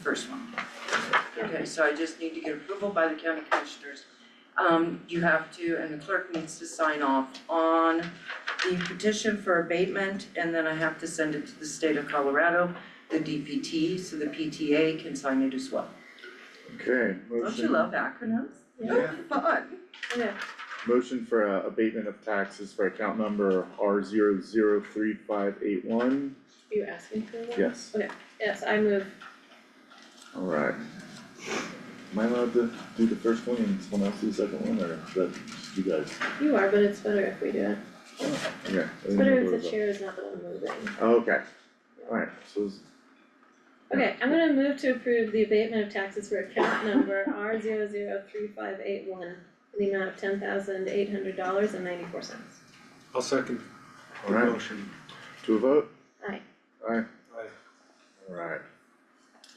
first one. Okay, so I just need to get approval by the county commissioners. Um, you have to, and the clerk needs to sign off on the petition for abatement, and then I have to send it to the state of Colorado, the DPT, so the PTA can sign it as well. Okay, Don't you motion, love acronyms? Yeah. Fun. motion for uh, abatement of taxes for account number R zero zero three five eight one, Are you asking for one? yes, Yes, I move, alright. Am I allowed to do the first one and someone else do the second one, or is that just you guys? you are, but it's better if we do it. Okay. I It's didn't better know what if was the up. chair is not the one moving. Oh, Okay, alright, so it's, Okay, I'm gonna move to approve the abatement of taxes for account number R zero zero three five eight one in the amount of ten thousand eight hundred dollars and ninety-four cents. I'll second the Alright. motion. to a vote? Aye. Aye. Aye. Alright.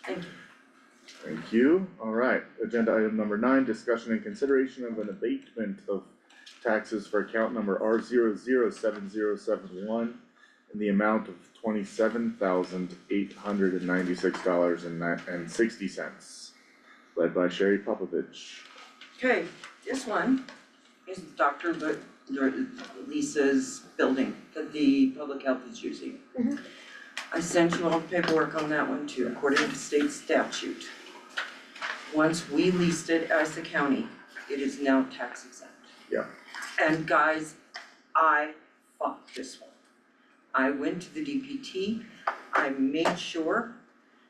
Thank you. Thank you, alright, agenda item number nine, discussion and consideration of an abatement of taxes for account number R zero zero seven zero seven one in the amount of twenty-seven thousand eight hundred and ninety-six dollars and and sixty cents. Led by Sherry Popovich. Okay, this one is Dr. Lu- Lu- Lisa's building that the public health is using. Mhm. I sent you all the paperwork on that one too, according to state statute. Once we leased it as the county, it is now tax exempt. Yeah. And guys, I fought this one. I went to the DPT, I made sure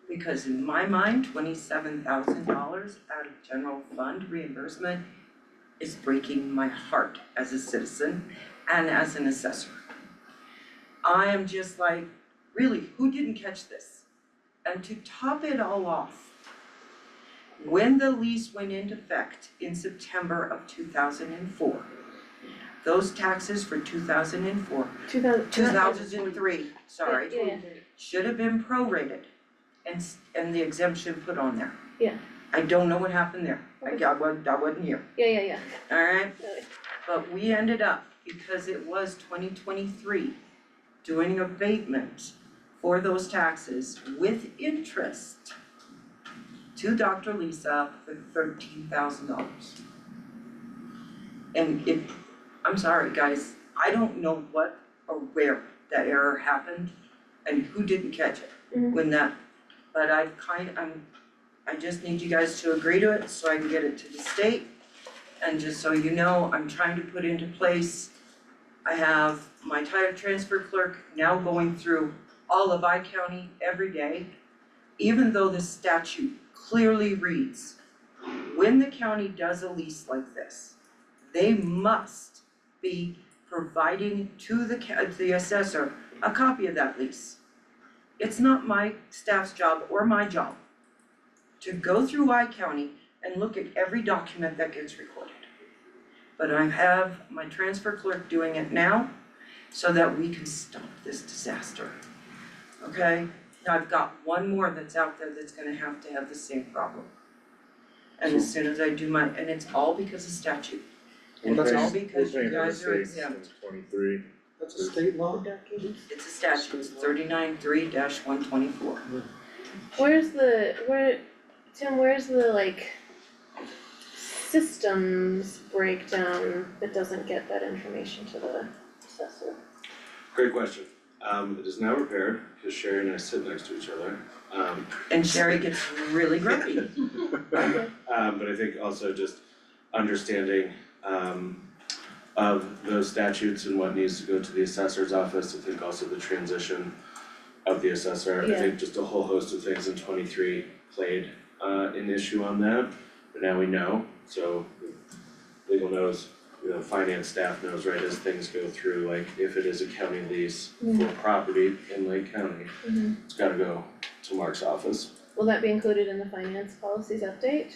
because in my mind, twenty-seven thousand dollars out of general fund reimbursement is breaking my heart as a citizen and as an assessor. I am just like, really, who didn't catch this? And to top it all off, when the lease went into effect in September of two thousand and four, those taxes for two thousand and four, Two thousand. two thousand and three, sorry Yeah, should have been prorated and s- and the exemption put on there. Yeah. I don't know what happened there, I I wasn't, I wasn't here, yeah, yeah, yeah. alright? Okay. But we ended up, because it was twenty twenty-three, doing abatement for those taxes with interest to Dr. Lisa for thirteen thousand dollars. And it, I'm sorry, guys, I don't know what or where that error happened and who didn't catch it Mhm. when that, but I kind, I'm, I just need you guys to agree to it so I can get it to the state. And just so you know, I'm trying to put into place, I have my title transfer clerk now going through all of I County every day. Even though the statute clearly reads, when the county does a lease like this, they must be providing to the ca- uh, the assessor a copy of that lease. It's not my staff's job or my job to go through I County and look at every document that gets recorded. But I have my transfer clerk doing it now so that we can stop this disaster. Okay, now I've got one more that's out there that's gonna have to have the same problem. And as soon as I do my, and it's all because of statute. And it's all because you guys are exempt. Twenty-three, That's a state law? Documents. It's a statute, thirty-nine three one twenty-four. Where's the, where, Tim, where's the like systems breakdown that doesn't get that information to the assessor? Great question. Um, it is now repaired because Sherry and I sit next to each other. Um, And Sherry gets really grumpy. um, but I think also just understanding um of those statutes and what needs to go to the assessor's office. I think also the transition of the assessor. I Yeah. think just a whole host of things in twenty-three played uh an issue on that. But now we know, so legal knows, you know, finance staff knows, right, as things go through, like if it is a county lease for property in Lake County, Mhm. it's gotta go to Mark's office. Will that be included in the finance policies update?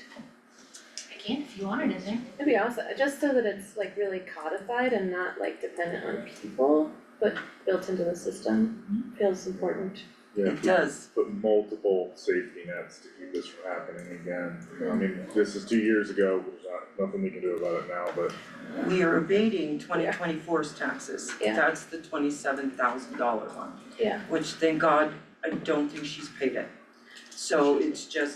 I can if you want it in there. That'd be awesome, just so that it's like really codified and not like dependent on people, but built into the system, feels important. yeah, It does. put multiple safety nets to keep this from happening again. You know, I mean, this is two years ago, there's not, nothing we can do about it now, but We are abating 2024's taxes. Yeah. That's the twenty-seven thousand dollar one. Yeah. Which thank God, I don't think she's paid it. So it's just